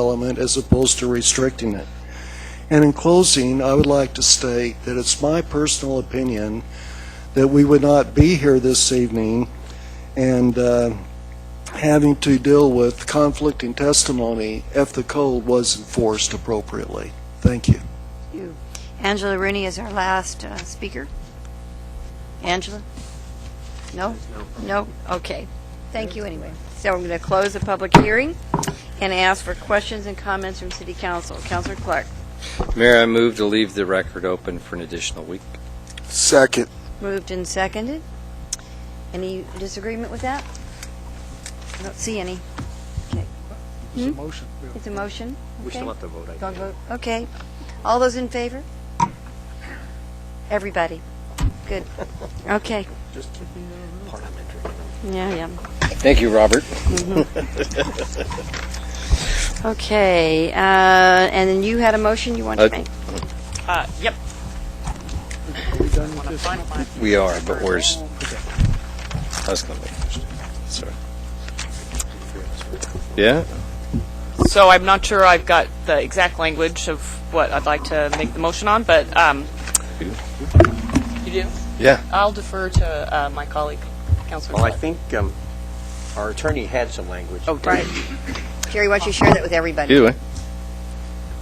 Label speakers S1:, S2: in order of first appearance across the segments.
S1: element as opposed to restricting it. And in closing, I would like to state that it's my personal opinion that we would not be here this evening and uh, having to deal with conflicting testimony if the code was enforced appropriately. Thank you.
S2: you. Angela Rooney is our last uh, speaker. Angela? No? No? Okay. Thank you anyway. So I'm going to close the public hearing and ask for questions and comments from City Council. Councilor Clark?
S3: Mayor, I move to leave the record open for an additional week.
S1: Second.
S2: Moved and seconded. Any disagreement with that? I don't see any. Okay. It's a motion. It's a motion? We still have to vote. Don't vote, okay. All those in favor? Everybody? Good. Okay. Yeah, yeah.
S3: Thank you, Robert.
S2: Okay, uh, and then you had a motion you wanted to
S3: Uh,
S2: make?
S4: Uh, yep. Want to finalize?
S3: We are, but where's? I was gonna make Sorry. Yeah?
S4: So I'm not sure I've got the exact language of what I'd like to make the motion on, but, um, you do?
S3: Yeah.
S4: I'll defer to, uh, my colleague, Counselor
S5: Well, I
S4: Clark.
S5: think um, our attorney had some language.
S4: Oh,
S2: Right. Jerry, why don't you share that with everybody?
S3: Either way.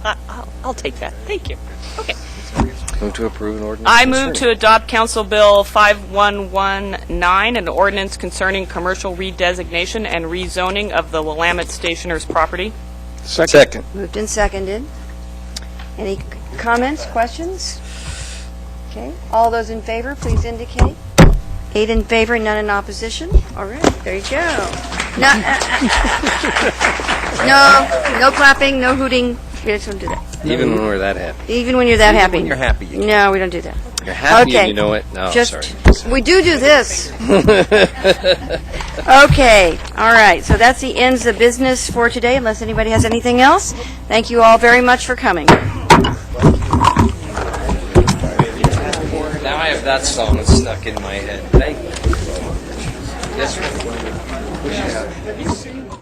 S4: I- I'll, I'll take that. Thank you. Okay.
S3: Move to approve an ordinance.
S4: I move to
S3: concerning-
S4: adopt Council Bill 5119, an ordinance concerning commercial redesignation and rezoning of the Willamette Stationers property.
S3: Second.
S2: Moved and seconded. Any c- comments, questions? Okay, all those in favor, please indicate. Eight in favor, none in opposition. All right, there you go. No, uh, uh, uh, no, no clapping, no hooting. We just don't do that.
S3: Even when we're that happy.
S2: Even when you're that happy.
S5: when you're happy, Oh, you
S2: No, we don't do that.
S3: You're happy
S2: Okay.
S3: and you know it? No,
S2: Just-
S3: sorry.
S2: We do do this. Okay, all right, so that's the ends of business for today, unless anybody has anything else. Thank you all very much for coming.
S3: Now I have that song stuck in my head. Thank you. Yes, sir.